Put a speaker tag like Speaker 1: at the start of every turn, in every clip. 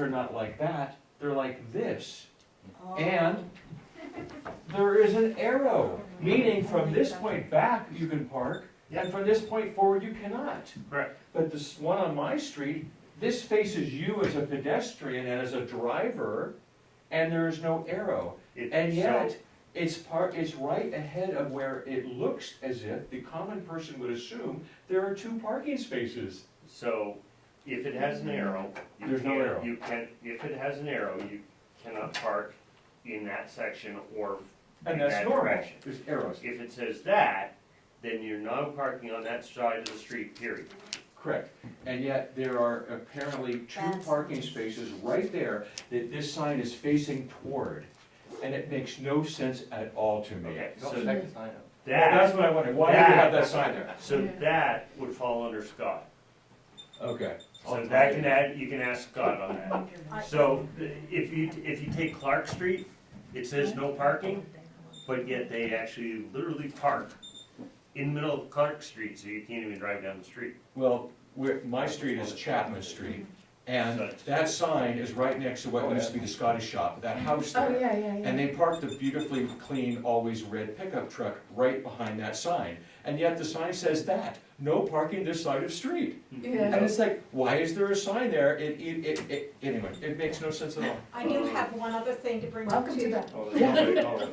Speaker 1: They're not like that, they're like this.
Speaker 2: Oh.
Speaker 1: And there is an arrow, meaning from this point back, you can park, and from this point forward, you cannot.
Speaker 3: Correct.
Speaker 1: But this one on my street, this faces you as a pedestrian and as a driver, and there is no arrow.
Speaker 3: It-
Speaker 1: And
Speaker 3: so-
Speaker 1: yet, it's part, it's right ahead of where it looks as if the common person would assume there are two parking spaces.
Speaker 3: So, if it has an arrow. you
Speaker 1: There's no
Speaker 3: can't-
Speaker 1: arrow.
Speaker 3: You can, if it has an arrow, you cannot park in that section or in
Speaker 1: And that's
Speaker 3: that
Speaker 1: normal,
Speaker 3: direction.
Speaker 1: there's arrows,
Speaker 3: If it says that, then you're not parking on that side of the street, period.
Speaker 1: Correct, and yet there are apparently two
Speaker 2: That's-
Speaker 1: parking spaces right there that this sign is facing toward, and it makes no sense at all to me.
Speaker 3: Okay,
Speaker 4: Don't
Speaker 3: so
Speaker 4: check the sign up.
Speaker 1: That's
Speaker 3: that,
Speaker 1: what I wondered, why do you have that sign there?
Speaker 3: so that would fall under Scott.
Speaker 1: Okay.
Speaker 3: So that can add, you can ask Scott on that.
Speaker 2: I-
Speaker 3: So, if you, if you take Clark Street, it says no parking, but yet they actually literally park in the middle of Clark Street, so you can't even drive down the street.
Speaker 1: Well, where, my street is Chapman Street, and that sign is right next to
Speaker 3: Oh,
Speaker 1: what used to be the Scottish shop, that house
Speaker 4: Oh,
Speaker 1: there.
Speaker 4: yeah, yeah, yeah.
Speaker 1: And they parked the beautifully clean, always red pickup truck right behind that sign, and yet the sign says that, no parking this side of street. And
Speaker 4: Yeah,
Speaker 1: it's like, why is there a sign there? It, it, it, it, anyway, it makes no sense at all.
Speaker 2: I do have one other thing to bring up
Speaker 4: welcome
Speaker 2: to
Speaker 4: to
Speaker 2: you.
Speaker 4: the,
Speaker 5: Oh,
Speaker 1: Yeah,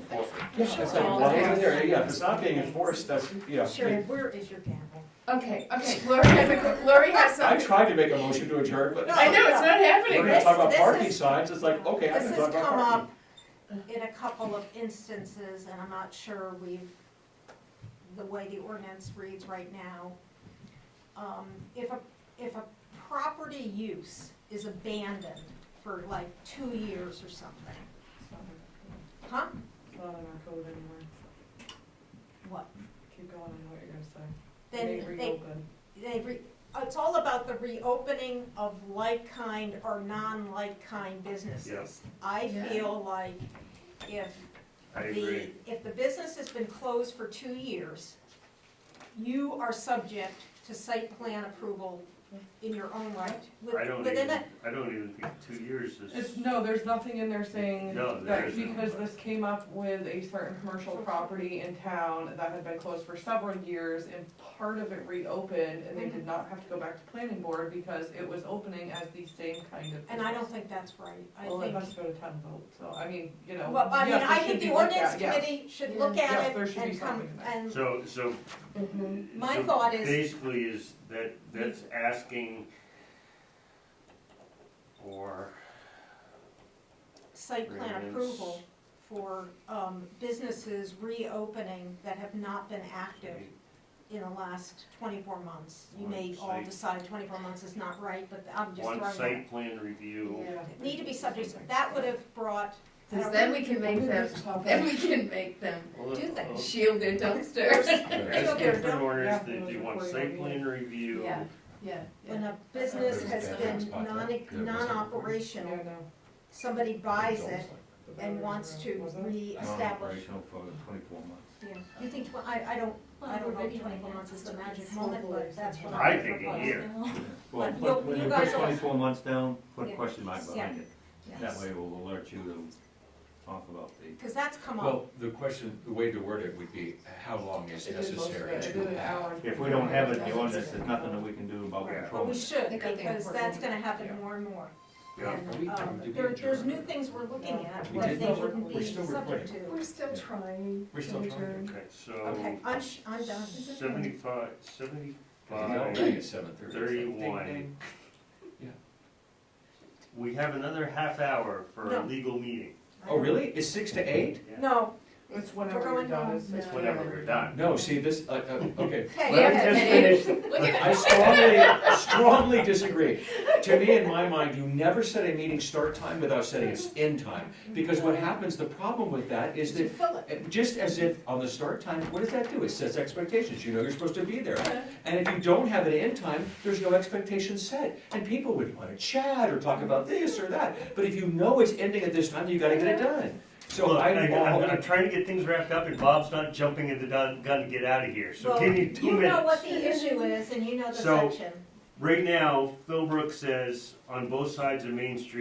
Speaker 1: it's like,
Speaker 2: Oh,
Speaker 1: why is it there? Yeah, if it's not being enforced, that's, yeah.
Speaker 2: Sherry, where is your gavel?
Speaker 4: okay, okay, Lori has a, Lori has
Speaker 1: I
Speaker 4: something.
Speaker 1: tried to make a motion to adjourn, but
Speaker 4: I know, it's not
Speaker 1: we're
Speaker 4: happening.
Speaker 1: gonna talk about
Speaker 2: This- this
Speaker 1: parking
Speaker 2: is-
Speaker 1: signs, it's like, okay, I'm
Speaker 2: This
Speaker 1: gonna
Speaker 2: has
Speaker 1: talk about
Speaker 2: come
Speaker 1: parking.
Speaker 2: up in a couple of instances, and I'm not sure we've, the way the ordinance reads right now. Um, If a, if a property use is abandoned for like two years or something, huh?
Speaker 6: It's not in our code anymore.
Speaker 2: What?
Speaker 6: Keep going on what you're gonna say.
Speaker 2: Then
Speaker 6: They
Speaker 2: they
Speaker 6: reopen.
Speaker 2: they re, it's all about the reopening of like-kind or non-like-kind businesses. I
Speaker 4: Yeah.
Speaker 2: feel like if
Speaker 3: I
Speaker 2: the,
Speaker 3: agree.
Speaker 2: if the business has been closed for two years, you are subject to site plan approval in your own right. with-
Speaker 3: I don't
Speaker 2: within
Speaker 3: even,
Speaker 2: a-
Speaker 3: I don't even think two years is,
Speaker 6: It's, no, there's nothing in there saying
Speaker 3: No, there
Speaker 6: that
Speaker 3: isn't.
Speaker 6: because this came up with a certain commercial property in town that had been closed for several years and part of it reopened and they did not have to go back to planning board because it was opening as the same kind of.
Speaker 2: And I don't
Speaker 6: business.
Speaker 2: think that's right. I
Speaker 6: Well, it
Speaker 2: think,
Speaker 6: must go to town vote, so I mean, you know.
Speaker 2: well, I mean,
Speaker 6: yes, it
Speaker 2: I
Speaker 6: should
Speaker 2: think
Speaker 6: be
Speaker 2: the
Speaker 6: looked
Speaker 2: ordinance
Speaker 6: at, yes.
Speaker 2: committee should look
Speaker 6: Yes,
Speaker 2: at
Speaker 6: there
Speaker 2: it
Speaker 6: should be
Speaker 2: and come,
Speaker 6: something in there.
Speaker 2: and
Speaker 3: so, so.
Speaker 2: Mm-hmm. My
Speaker 3: so
Speaker 2: thought is-
Speaker 3: Basically is that, that's asking for,
Speaker 2: site plan
Speaker 3: Variance.
Speaker 2: approval for um, businesses reopening that have not been active in the last twenty-four months. You may
Speaker 3: One
Speaker 2: all
Speaker 3: site.
Speaker 2: decide twenty-four months is not right, but I'm just throwing
Speaker 3: one
Speaker 2: that.
Speaker 3: site plan review.
Speaker 4: Yeah.
Speaker 2: Need to be subject, that would have brought,
Speaker 4: Cause then we can make them, then we can make them
Speaker 3: Well,
Speaker 2: Do they?
Speaker 3: uh,
Speaker 4: shield their dumpsters.
Speaker 3: Asking for an ordinance
Speaker 6: Yeah.
Speaker 3: that you want site plan review.
Speaker 4: Yeah, yeah,
Speaker 2: when
Speaker 4: yeah.
Speaker 2: a business
Speaker 1: There's
Speaker 2: has
Speaker 1: been a
Speaker 2: been
Speaker 1: spot there.
Speaker 2: non,
Speaker 1: There was a-
Speaker 6: Yeah,
Speaker 2: non-operational,
Speaker 6: no.
Speaker 2: somebody buys it and wants to
Speaker 6: Was it?
Speaker 2: reestablish.
Speaker 4: for twenty-four months.
Speaker 2: Yeah. You think, tw- I, I don't, I don't know if twenty-four months is the magic moment, but that's what
Speaker 3: I
Speaker 2: I'm
Speaker 3: think
Speaker 2: proposing.
Speaker 3: a year.
Speaker 5: Well,
Speaker 2: But
Speaker 5: put-
Speaker 2: you'll-
Speaker 5: when
Speaker 2: you
Speaker 5: you
Speaker 2: guys
Speaker 5: put
Speaker 2: will-
Speaker 5: twenty-four months down, put
Speaker 2: Yeah.
Speaker 5: a question mark behind it. That
Speaker 2: Yes.
Speaker 5: way we'll alert you to talk about the.
Speaker 2: Cause that's come up.
Speaker 1: Well, the question, the way to word it would be, how long is
Speaker 6: It did most of
Speaker 1: necessary
Speaker 6: it. It
Speaker 1: to
Speaker 6: did an
Speaker 1: have?
Speaker 6: hour.
Speaker 5: If we don't have it in the ordinance, there's nothing that we can do about
Speaker 3: Right.
Speaker 2: But
Speaker 5: controlling.
Speaker 2: we
Speaker 5: it.
Speaker 2: should,
Speaker 4: They got the
Speaker 2: because
Speaker 4: important
Speaker 2: that's gonna
Speaker 4: ones.
Speaker 2: happen
Speaker 6: Yeah.
Speaker 2: more and more.
Speaker 3: Yeah.
Speaker 1: Are we
Speaker 2: And,
Speaker 1: done?
Speaker 2: um,
Speaker 1: Did we
Speaker 2: there, there's
Speaker 1: adjourn?
Speaker 2: new things we're looking at
Speaker 1: We
Speaker 2: that
Speaker 1: did.
Speaker 2: they wouldn't
Speaker 1: We're
Speaker 2: be
Speaker 1: still
Speaker 2: subject
Speaker 4: We're
Speaker 2: to.
Speaker 4: still trying.
Speaker 1: We're still trying.
Speaker 3: Okay, so.
Speaker 2: Okay, I'm, sh- I'm done.
Speaker 3: Seventy-five,
Speaker 1: Already
Speaker 3: seventy-five,
Speaker 1: at 7:30.
Speaker 3: thirty-one. We have another half hour for a
Speaker 2: No.
Speaker 3: legal meeting.
Speaker 1: Oh, really? It's six to eight?
Speaker 2: No,
Speaker 6: It's
Speaker 2: We're
Speaker 6: whenever
Speaker 2: going
Speaker 6: you're done.
Speaker 2: home.
Speaker 6: it's- it's
Speaker 4: No.
Speaker 3: Whenever we're done.
Speaker 1: No, see, this, uh, uh, okay.
Speaker 2: okay.
Speaker 4: Let
Speaker 2: okay.
Speaker 4: me just
Speaker 3: finish.
Speaker 4: Look at
Speaker 1: I strongly, strongly disagree. To me, in my mind, you never set a meeting start time without setting its end time. Because what happens, the problem with that is
Speaker 2: You
Speaker 1: that,
Speaker 2: fill it.
Speaker 1: uh, just as if on the start time, what does that do? It sets expectations, you know you're supposed to be there. And if you don't have an end time, there's no expectation set. And people would wanna chat or talk about this or that. But if you know it's ending at this time, you gotta get it done. So
Speaker 3: Look, I-
Speaker 1: I'm all,
Speaker 3: I'm, I'm trying to get things wrapped up and Bob's not jumping at the dun- gun to get out of here, so
Speaker 2: Well,
Speaker 3: give me two
Speaker 2: You know
Speaker 3: minutes.
Speaker 2: what the issue is, and you know the
Speaker 3: So-
Speaker 2: section.
Speaker 3: Right now, Phil Brooks says on both sides of Main Street,